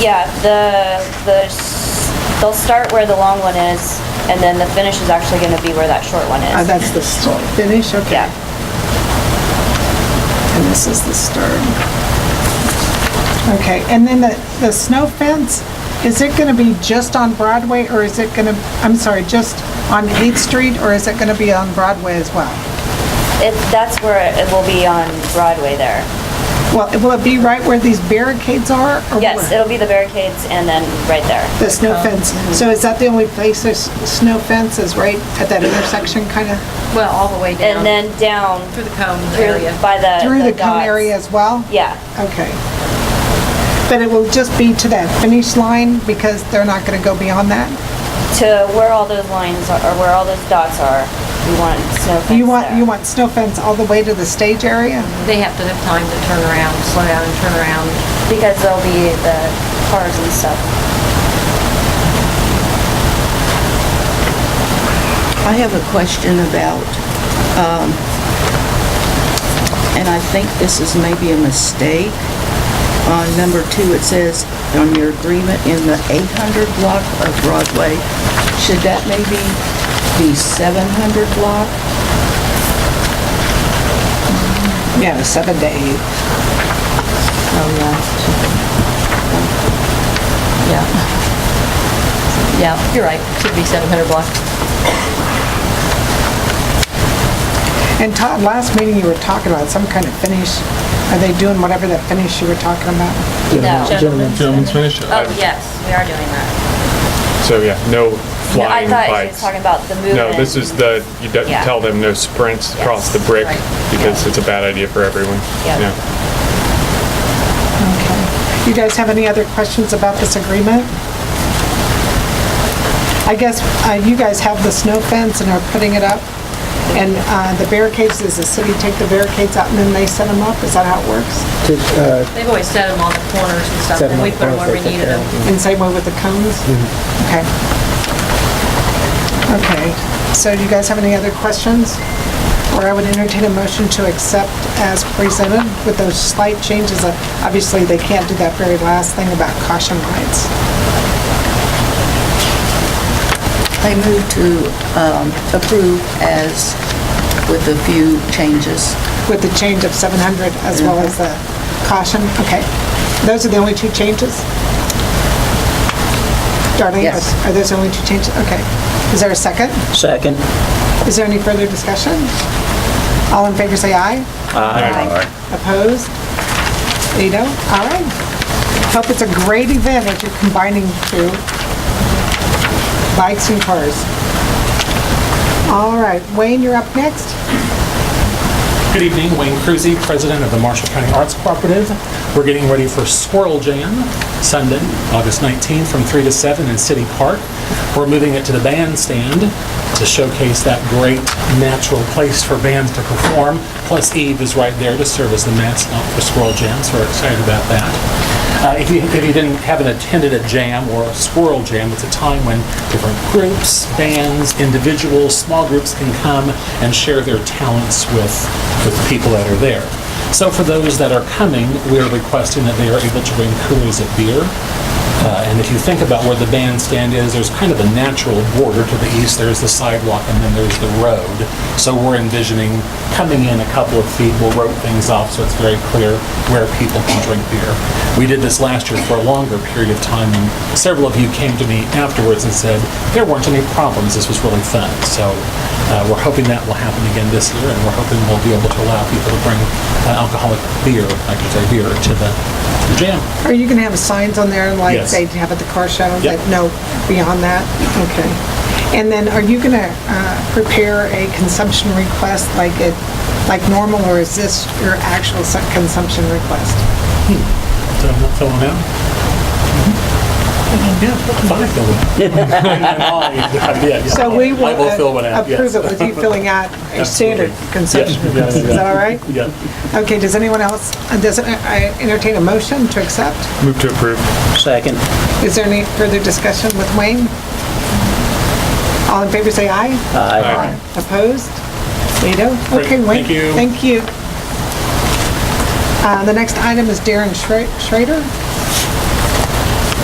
Yeah, the, the, s- they'll start where the long one is, and then the finish is actually gonna be where that short one Oh, is. that's the s- finish, okay. Yeah. And this is the stern. Okay, and then the, the snow fence, is it gonna be just on Broadway, or is it gonna, I'm sorry, just on 8th Street, or is it gonna be on Broadway as well? It, that's where it will be on Broadway there. Well, will it be right where these barricades are? or Yes, where? it'll be the barricades and then right there. The snow fence, so is that the only place there's snow fence, is right at that intersection, kinda? Well, all the way down. And then down Through the cone through, area. by the, Through the cone dots. area as well? Yeah, Okay. But it will just be to that finish line because they're not going to go beyond that? to where all those lines are, or where all those dots are, we want snow fence You want, there. you want snow fence all the way to the stage area? They have to have time to turn around, slow down and turn around. Because there'll be the cars and stuff. I have a question about, um, and I think this is maybe a mistake. On number two, it says, on your agreement in the 800 block of Broadway, should that maybe be 700 block? Yeah, seven to eight. Oh, yeah. Yeah. Yeah, you're right. Should be 700 block. And Todd, last meeting you were talking about some kind of finish. Are they doing whatever that finish you were talking about? No. Gentlemen, Gentlemen's finish? Oh, yes, we are doing that. So, yeah, no No, I flying thought she was bikes. talking about the movement. No, this is the, you don't- you Yeah. tell them no sprints across the Yes, brick right. because it's a bad idea for everyone. Yeah. Okay. You guys have any other questions about this agreement? I guess uh, you guys have the snow fence and are putting it up. And uh, the barricades, does the city take the barricades out and then they set them up? Is that how it works? To, uh, They've always set them on the corners and stuff, Set and 'em on we the put them where corners, we they take needed care them. of And same way with the cones? Okay. Mm-hmm. Okay, so do you guys have any other questions? Or I would entertain a motion to accept as presented with those slight changes. Uh, Obviously, they can't do that very last thing about caution lights. They move to um, approve as, with a few changes. with the change of 700 as well as the caution? Okay. Those are the only two changes? Darlene? Yes. Are those the only two changes? Okay. Is there a second? Second. Is there any further discussion? All in favor, say aye. Aye. Opposed? Eight oh, all right. Hope it's a great event if you're combining two, bikes and cars. All right, Wayne, you're up next. Good evening, Wayne Cruzy, President of the Marshall County Arts Cooperative. We're getting ready for Squirrel Jam, Sunday, August 19th, from 3 to 7 in City Park. We're moving it to the bandstand to showcase that great natural place for bands to perform. Plus Eve is right there to serve as the mascot for Squirrel Jam, so we're excited about that. Uh, If you, if you didn't, haven't attended a jam or a squirrel jam, it's a time when different groups, bands, individuals, small groups can come and share their talents with, with the people that are there. So for those that are coming, we are requesting that they are able to bring coolers of beer. Uh, And if you think about where the bandstand is, there's kind of a natural border to the east. There's the sidewalk and then there's the road. So we're envisioning coming in a couple of feet, we'll rope things off so it's very clear where people can drink beer. We did this last year for a longer period of time and several of you came to me afterwards and said, there weren't any problems, this was really fun. So uh, we're hoping that will happen again this year and we're hoping we'll be able to allow people to bring uh, alcoholic beer, I should say beer, to the to the jam. Are you going to have signs on there like Yes. they have at the car show? Yep. That no beyond that? Okay. And then are you going to prepare a consumption request like it, like normal, or is this your actual su- consumption request? So I'm not filling out? Yeah, fine, fill one out. So we will I will fill one uh, out, yes. approve it with you filling out a standard consumption Yeah, yeah, request. Is yeah. that all right? Yeah, Okay, does anyone else, uh, does, it- I entertain a motion to accept? Move to approve. Second. Is there any further discussion with Wayne? All in favor, say aye. Aye. Opposed? Veto? Great, Okay, wait. thank you. Thank you. Uh, The next item is Darren Schre- Schrader.